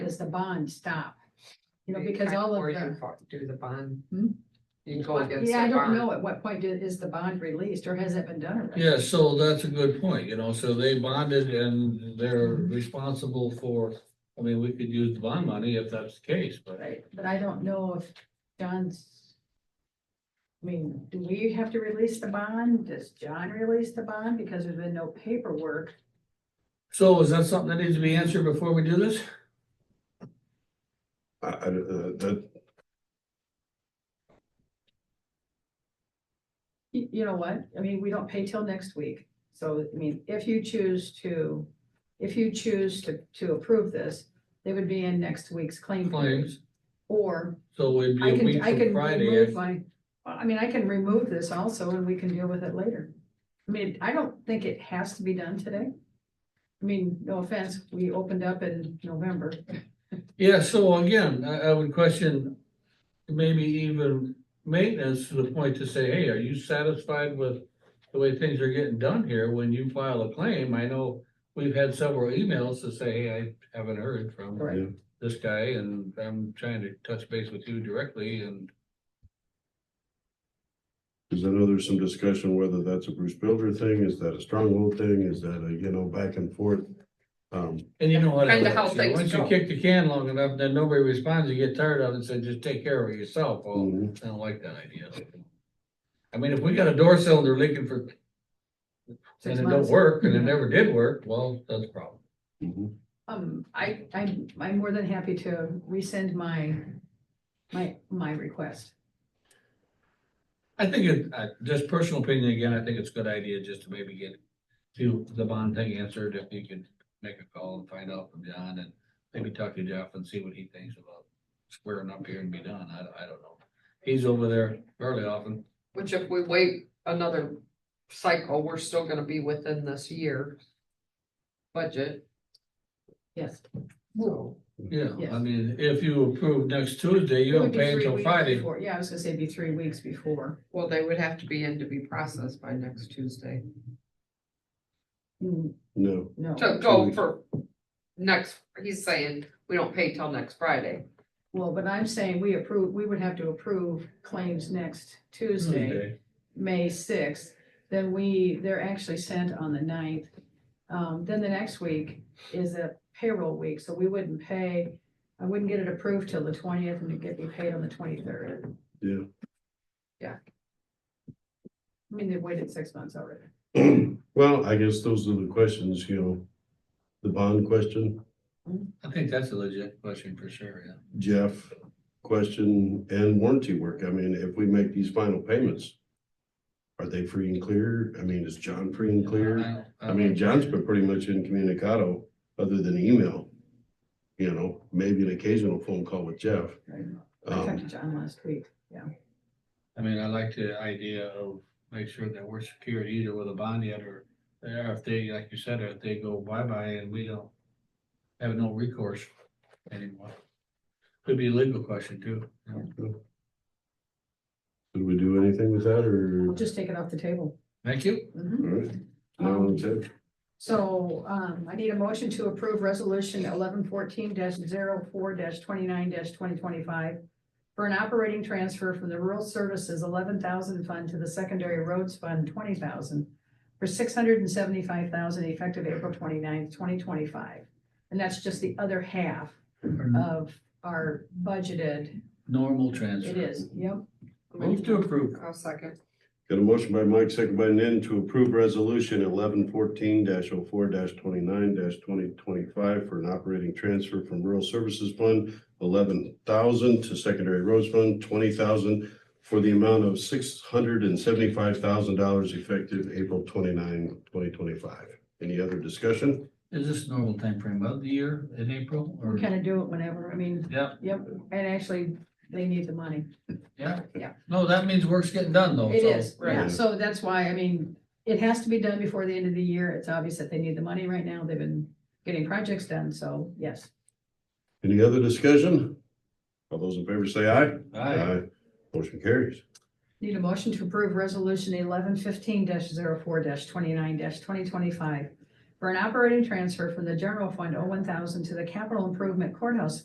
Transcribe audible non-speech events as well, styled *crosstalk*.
does the bond stop? You know, because all Or of you can the, fo- do the bond. Hmm? You can go against. yeah, I the don't bond. know at what point i- is the bond released or has it been done already? Yeah, so that's a good point, you know, so they bonded and they're Mm-hmm. responsible for, I mean, we could use the bond money if that's the case, but. Right, but I don't know if John's. I mean, do we have to release the bond? Does John release the bond? Because there's been no paperwork. So is that something that needs to be answered before we do this? I, I, uh, that, You, you know what? I mean, we don't pay till next week. So, I mean, if you choose to, if you choose to, to approve this, they would be in next week's claim. period. Claims, Or so it'd be I a can, week I from can Friday. remove if- my, well, I mean, I can remove this also and we can deal with it later. I mean, I don't think it has to be done today. I mean, no offense, we opened up in November. Yeah, so again, I, I would question maybe even maintenance to the point to say, hey, are you satisfied with the way things are getting done here when you file a claim? I know we've had several emails to say, hey, I haven't heard from Right. this guy and I'm trying to touch base with you directly and cause I know there's some discussion whether that's a Bruce Builder thing, is that a stronghold thing, is that a, you know, back and forth. Um, and you know what? it Kinda how works, you know, things Once you go. kick the can long enough, then nobody responds, you get tired of it and say, just take care of it yourself. Well, mhm. I don't like that idea. I mean, if we got a door cylinder leaking for six And it don't months. Mm-hmm. work, and it never did work, well, that's a problem. Mhm. Um, I, I'm, I'm more than happy to rescind my, my, my request. I think it, I, just personal opinion again, I think it's a good idea just to maybe get to the bond thing answered, if you could make a call and find out from John and maybe talk to Jeff and see what he thinks about squaring up here and be done, I, I don't know. He's over there fairly often, Which if we wait another cycle, we're still gonna be within this year. Budget. Yes. So yeah, I Yes. mean, if you approve next Tuesday, you It would don't be pay three until weeks Friday. before- Yeah, I was gonna say it'd be three weeks before. Well, they would have to be in to be processed by next Tuesday. Mm, No, No, To go for next, he's saying, we don't pay till next Friday. well, but I'm saying we approve, we would have to approve claims next Tuesday. Tuesday. May sixth, then we, they're actually sent on the 9th. Um, then the next week is a payroll week, so we wouldn't pay, I wouldn't get it approved till the twentieth and it'd get me paid on the twenty-third. yeah. *clears throat* I mean, they've waited six months already. Well, I guess those are the questions, you know. The bond question, I think that's a legit question for sure, yeah. Jeff question and warranty work. I mean, if we make these final payments. Are they free and clear? I mean, is John free and clear? I- I mean, John's been pretty much incommunicado, other than email. You know, maybe an occasional phone call with Jeff. I talked to Um, John last week, yeah. I mean, I like the idea of make sure that we're secured either with a bond yet or there, if they, like you said, if they go bye-bye and we don't have no recourse anymore. Could be a legal question too. you know. Um, did we do anything with that I'll or? just take it off the table. Thank you. Mhm. All right. No, that's it. So, um, I need a motion to approve resolution eleven fourteen 4 twenty-nine twenty twenty-five. For an operating transfer from the Rural Services eleven thousand fund to the Secondary Roads Fund twenty thousand. For six hundred and seventy-five thousand effective April 29th, twenty twenty-five. And that's just the other half of our budgeted, Normal transfer. it is, yep. Move to approve. I'll second. Got a motion by Mike, second by Nan to approve resolution eleven fourteen 4 twenty-nine twenty twenty-five for an operating transfer from rural services fund eleven thousand to secondary roads fund twenty thousand for the amount of six hundred and seventy-five thousand dollars effective April 29, 2025. Any other discussion? Is this normal timeframe of the year in April or? We kind of do it whenever, I mean, Yeah, yep, and actually, they need the money. yeah. Yeah. No, that means work's getting done though. It so- is, yeah, Yeah. so that's why, I mean, it has to be done before the end of the year, it's obvious that they need the money right now, they've been getting projects done, so, yes. Any other discussion? All those in favor say aye. Aye. Motion carries. Need a motion to approve resolution eleven fifteen 4 twenty-nine twenty twenty-five for an operating transfer from the general fund oh one thousand to the capital improvement courthouse